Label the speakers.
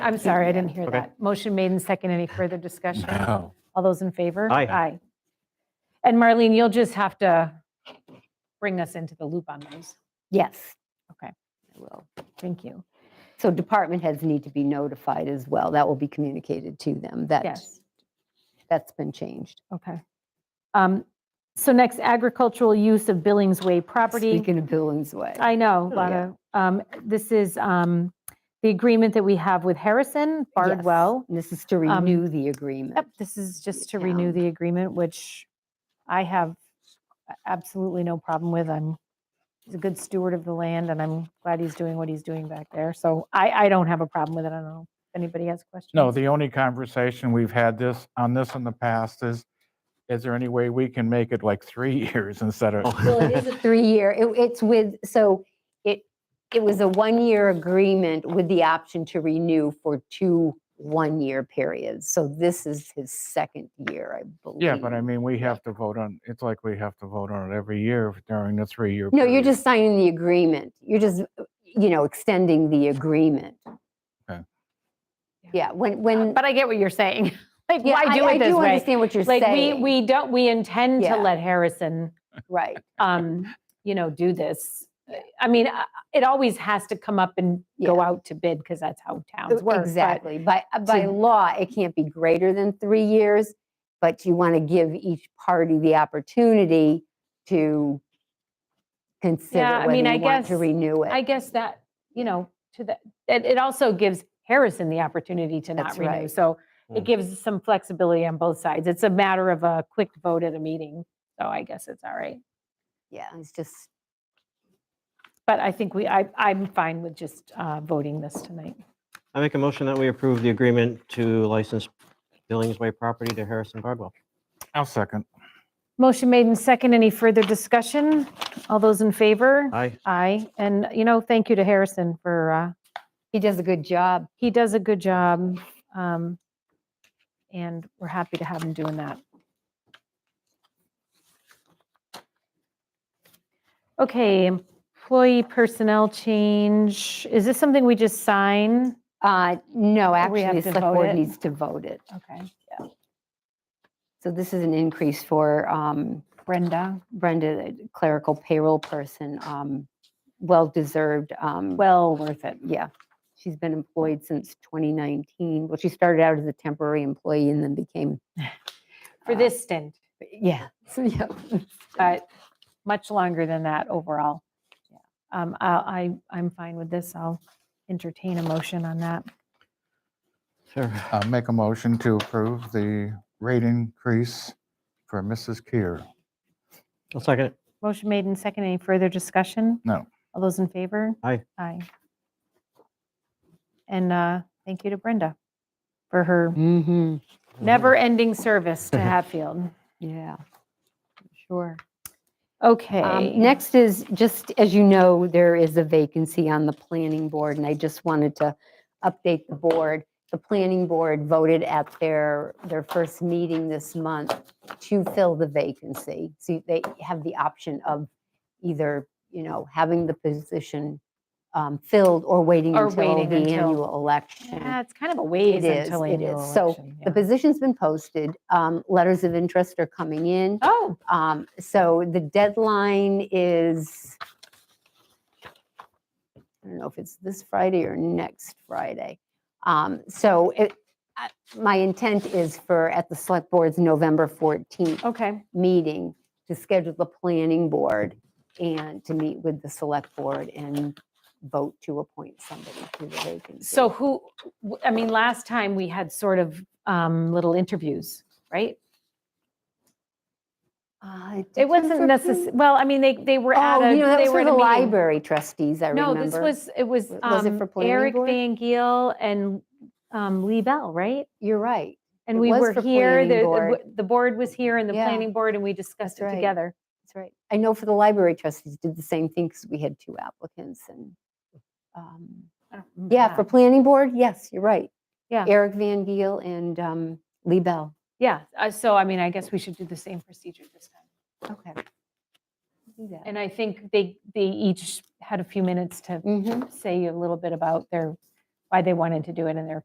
Speaker 1: I'm sorry, I didn't hear
Speaker 2: Okay.
Speaker 1: that. Motion made and second. Any further discussion?
Speaker 3: No.
Speaker 1: All those in favor?
Speaker 2: Aye.
Speaker 1: Aye. And Marlene, you'll just have to bring us into the loop on those.
Speaker 4: Yes.
Speaker 1: Okay.
Speaker 4: I will.
Speaker 1: Thank you.
Speaker 4: So department heads need to be notified as well. That will be communicated to them that
Speaker 1: Yes.
Speaker 4: that's been changed.
Speaker 1: Okay. Um, So next, agricultural use of Billings Way property.
Speaker 4: Speaking of Billings Way.
Speaker 1: I know,
Speaker 4: Oh, yeah.
Speaker 1: Lana. Um, This is um, the agreement that we have with Harrison
Speaker 4: Yes,
Speaker 1: Bardwell.
Speaker 4: and This is to
Speaker 1: Um,
Speaker 4: renew the agreement.
Speaker 1: Yep, this is just to renew
Speaker 4: Yeah.
Speaker 1: the agreement, which I have a- absolutely no problem with. I'm, he's a good steward of the land, and I'm glad he's doing what he's doing back there. So I, I don't have a problem with it. I don't know if anybody has questions.
Speaker 3: No, the only conversation we've had this, on this in the past is, is there any way we can make it like three years instead of?
Speaker 4: Well, it is a three-year, it, it's with, so it, it was a one-year agreement with the option to renew for two one-year periods. So this is his second year, I believe.
Speaker 3: Yeah, but I mean, we have to vote on, it's like we have to vote on it every year during the three-year.
Speaker 4: No, you're
Speaker 3: period.
Speaker 4: just signing the agreement. You're just, you know, extending the agreement.
Speaker 3: Okay.
Speaker 4: Yeah, when, when.
Speaker 1: But I get what you're saying. Like,
Speaker 4: yeah,
Speaker 1: why do
Speaker 4: I-
Speaker 1: it this
Speaker 4: I do
Speaker 1: way?
Speaker 4: understand what you're
Speaker 1: Like, we,
Speaker 4: saying.
Speaker 1: we don't, we intend to
Speaker 4: Yeah.
Speaker 1: let Harrison,
Speaker 4: Right,
Speaker 1: um, you know, do this. I mean, uh, it always has to come up and go out to bid, because that's how towns work. but-
Speaker 4: exactly. By, uh, by
Speaker 1: to-
Speaker 4: law, it can't be greater than three years, but you want to give each party the opportunity to
Speaker 1: Yeah, I
Speaker 4: consider whether
Speaker 1: mean, I
Speaker 4: you want to
Speaker 1: guess-
Speaker 4: renew
Speaker 1: I
Speaker 4: it.
Speaker 1: guess that, you know, to the, it, it also gives Harrison the opportunity to not
Speaker 4: That's
Speaker 1: renew.
Speaker 4: right.
Speaker 1: So it
Speaker 2: Mm.
Speaker 1: gives some flexibility on both sides. It's a matter of a quick vote at a meeting. So I guess it's all right.
Speaker 4: Yeah, it's just,
Speaker 1: But I think we, I, I'm fine with just uh, voting this tonight.
Speaker 2: I make a motion that we approve the agreement to license Billings Way property to Harrison Bardwell.
Speaker 3: I'll second.
Speaker 1: Motion made and second. Any further discussion? All those in favor?
Speaker 2: Aye.
Speaker 1: Aye. And, you know, thank you to Harrison for, uh,
Speaker 4: he does a good job.
Speaker 1: he does a good job. um, And we're happy to have him doing that. Okay, employee personnel change. Is this something we just sign?
Speaker 4: Uh, no,
Speaker 1: we have
Speaker 4: actually, the
Speaker 1: to
Speaker 4: select
Speaker 1: vote it?
Speaker 4: board needs to vote it.
Speaker 1: Okay.
Speaker 4: So this is an increase for, um,
Speaker 1: Brenda,
Speaker 4: Brenda, the clerical payroll person, um, well-deserved. um,
Speaker 1: well worth it.
Speaker 4: Yeah, she's been employed since 2019. Well, she started out as a temporary employee and then became,
Speaker 1: For
Speaker 4: Uh,
Speaker 1: this stint,
Speaker 4: yeah. So, yeah.
Speaker 1: but much longer than that overall. Um, I, I- I'm fine with this. I'll entertain a motion on that.
Speaker 2: Sure.
Speaker 3: Uh, Make a motion to approve the rate increase for Mrs. Keer.
Speaker 2: I'll second it.
Speaker 1: Motion made and second. Any further discussion?
Speaker 3: No.
Speaker 1: All those in favor?
Speaker 2: Aye.
Speaker 1: Aye. And uh, thank you to Brenda for her
Speaker 4: Mm-hmm,
Speaker 1: never-ending service to Hatfield.
Speaker 4: yeah, sure.
Speaker 1: Okay.
Speaker 4: Um, Next is, just as you know, there is a vacancy on the planning board, and I just wanted to update the board. The planning board voted at their, their first meeting this month to fill the vacancy. So they have the option of either, you know, having the position um, filled or waiting
Speaker 1: Or
Speaker 4: until
Speaker 1: waiting
Speaker 4: the
Speaker 1: until-
Speaker 4: annual election.
Speaker 1: Yeah, It's kind of a ways
Speaker 4: It is,
Speaker 1: until
Speaker 4: it
Speaker 1: annual
Speaker 4: is. So
Speaker 1: election.
Speaker 4: The
Speaker 1: yeah.
Speaker 4: position's been posted. Um, Letters of interest are coming in.
Speaker 1: Oh,
Speaker 4: Um, so the deadline is, I don't know if it's this Friday or next Friday. Um, so it, I- my intent is for, at the select board's November 14th
Speaker 1: okay.
Speaker 4: meeting, to schedule the planning board and to meet with the select board and vote to appoint somebody to the vacancy.
Speaker 1: So who, w- I mean, last time we had sort of um, little interviews, right?
Speaker 4: Uh,
Speaker 1: It wasn't
Speaker 4: different-
Speaker 1: necessarily, well, I mean, they, they were at
Speaker 4: Oh,
Speaker 1: a,
Speaker 4: you know, that
Speaker 1: they were
Speaker 4: was for
Speaker 1: at
Speaker 4: the
Speaker 1: a meeting.
Speaker 4: library trustees, I
Speaker 1: No,
Speaker 4: remember.
Speaker 1: this was, it was
Speaker 4: W- was it for
Speaker 1: um,
Speaker 4: planning
Speaker 1: Eric
Speaker 4: board?
Speaker 1: Van Giel and um, Lee Bell, right?
Speaker 4: You're right.
Speaker 1: And
Speaker 4: It
Speaker 1: we
Speaker 4: was
Speaker 1: were
Speaker 4: for
Speaker 1: here,
Speaker 4: planning
Speaker 1: the- the,
Speaker 4: board.
Speaker 1: w- the board was here and the
Speaker 4: Yeah.
Speaker 1: planning board, and we discussed it
Speaker 4: That's right.
Speaker 1: together.
Speaker 4: That's right. I know for the library trustees did the same thing because we had two applicants and, um,
Speaker 1: I don't remember
Speaker 4: yeah,
Speaker 1: that.
Speaker 4: for planning board, yes, you're right.
Speaker 1: Yeah.
Speaker 4: Eric Van Giel and um, Lee Bell.
Speaker 1: Yeah, uh, so I mean, I guess we should do the same procedure this time.
Speaker 4: Okay.
Speaker 1: And I think they, they each had a few minutes to
Speaker 4: Mm-hmm,
Speaker 1: say a little bit about their, why they wanted to do it and their